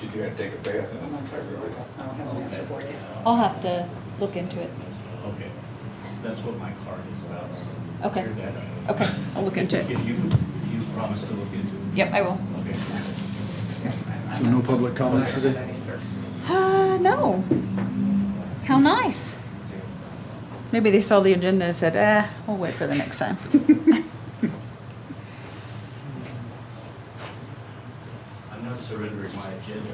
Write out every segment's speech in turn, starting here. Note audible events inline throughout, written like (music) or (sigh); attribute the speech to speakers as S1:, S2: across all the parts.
S1: Did you have to take a bath?
S2: I'm not sure. I don't have an answer for you.
S3: I'll have to look into it.
S4: Okay, that's what my card is about, so.
S3: Okay.
S4: clear that up.
S3: Okay, I'll look into it.
S4: If you, if you promise to look into it.
S3: Yep, I will.
S4: Okay.
S5: So no public comments today?
S3: Uh, no. How nice. Maybe they saw the agenda and said, eh, we'll wait for the next time. (laughs)
S4: I'm not surrendering my agenda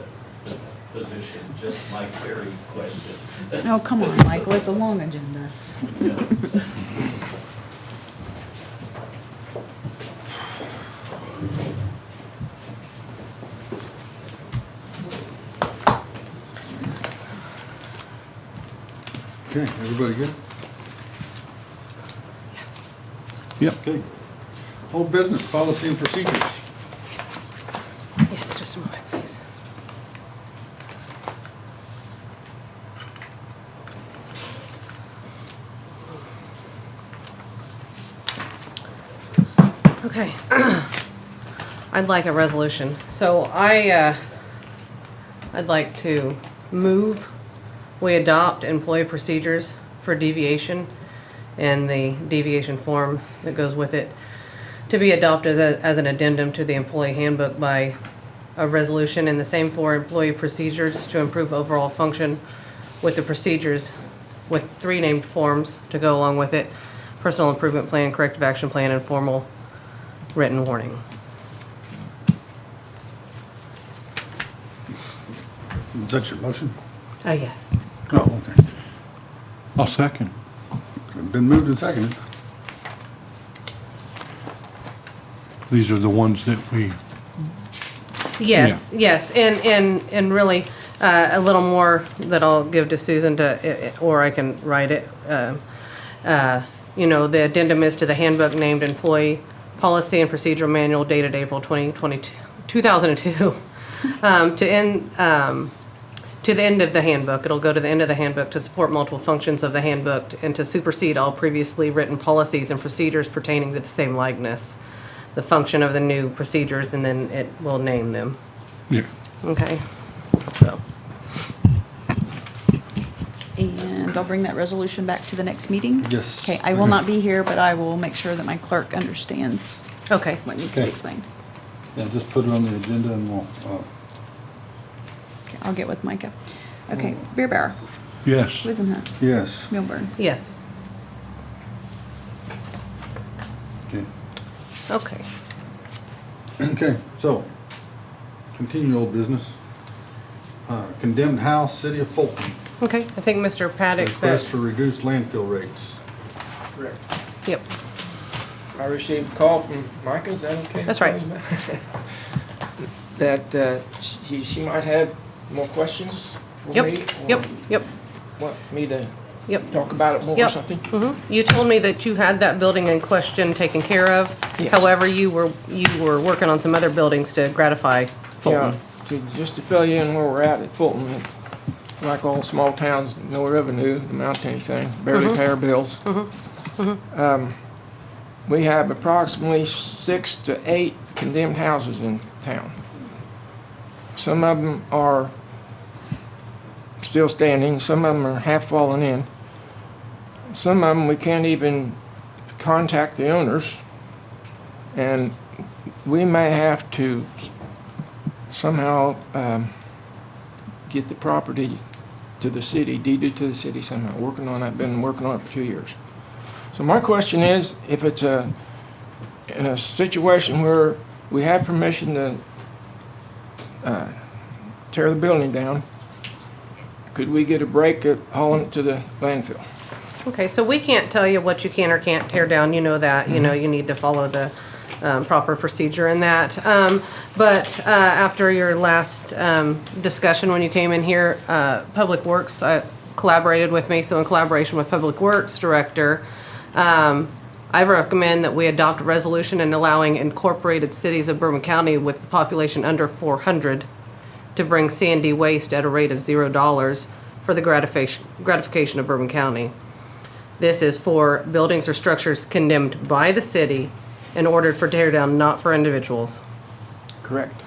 S4: position, just my query question. (laughs)
S3: Oh, come on, Michael, it's a long agenda.
S5: Okay, everybody good?
S6: Yep.
S5: Okay. Old business, policy and procedures.
S3: Yes, just a moment, please.
S7: Okay. (clears throat) I'd like a resolution. So I, uh, I'd like to move, we adopt employee procedures for deviation and the deviation form that goes with it to be adopted as, a- as an addendum to the employee handbook by a resolution and the same for employee procedures to improve overall function with the procedures with three named forms to go along with it, personal improvement plan, corrective action plan, and formal written warning.
S5: Is that your motion?
S7: Ah, yes.
S5: Oh, okay.
S6: I'll second.
S5: It's Been moved and seconded.
S6: These are the ones that we,
S7: Yes, yes, and, and, and really, uh, a little more that I'll give to Susan to, i- i- or I can write it. um, uh, You know, the addendum is to the handbook named employee policy and procedural manual dated April 2022, 2002. (laughs) um, To end, um, to the end of the handbook. It'll go to the end of the handbook to support multiple functions of the handbook and to supersede all previously written policies and procedures pertaining to the same likeness. The function of the new procedures, and then it will name them.
S6: yeah,
S7: Okay, so,
S3: And I'll bring that resolution back to the next meeting?
S5: Yes.
S3: Okay, I will not be here, but I will make sure that my clerk understands
S7: okay,
S3: what needs to be
S5: Okay.
S3: explained.
S5: Yeah, just put it on the agenda and we'll, uh,
S3: Okay, I'll get with Micah. Okay,
S5: Oh.
S3: Beer Bar,
S6: yes.
S3: Wizenhut,
S5: yes,
S3: Milburn.
S7: yes,
S5: okay.
S7: okay.
S5: Okay, so, continue old business. Uh, Condemned house, city of Fulton,
S7: Okay, I think Mr. Paddock, uh,
S5: request
S7: that,
S5: for reduced landfill rates.
S1: Correct.
S7: yep,
S1: I received a call from Micah, is that okay?
S7: That's right.
S1: (laughs) That uh, she, she might have more questions for me?
S7: yep, yep, yep,
S1: or Want me to
S7: yep.
S1: talk about it more or
S7: Yep.
S1: something?
S7: Mhm. You told me that you had that building in question taken care of.
S1: Yes.
S7: However, you were, you were working on some other buildings to gratify Fulton.
S1: Yeah, to- just to fill you in where we're at at Fulton, like all small towns, no revenue, amount to anything, barely pay our bills. Um, We have approximately six to eight condemned houses in town. Some of them are still standing, some of them are half fallen in. Some of them, we can't even contact the owners, and we may have to somehow um, get the property to the city, deeded to the city somehow. Working on that, been working on it for two years. So my question is, if it's a, in a situation where we have permission to uh, tear the building down, could we get a break at hauling it to the landfill?
S7: Okay, so we can't tell you what you can or can't tear down, you know that, you know, you need to follow the um, proper procedure in that. Um, But uh, after your last um, discussion, when you came in here, uh, Public Works uh, collaborated with me, so in collaboration with Public Works Director, um, I recommend that we adopt a resolution in allowing incorporated cities of Bourbon County with the population under 400 to bring C and D waste at a rate of $0 for the gratification gratification of Bourbon County. This is for buildings or structures condemned by the city and ordered for teardown, not for individuals.
S1: Correct.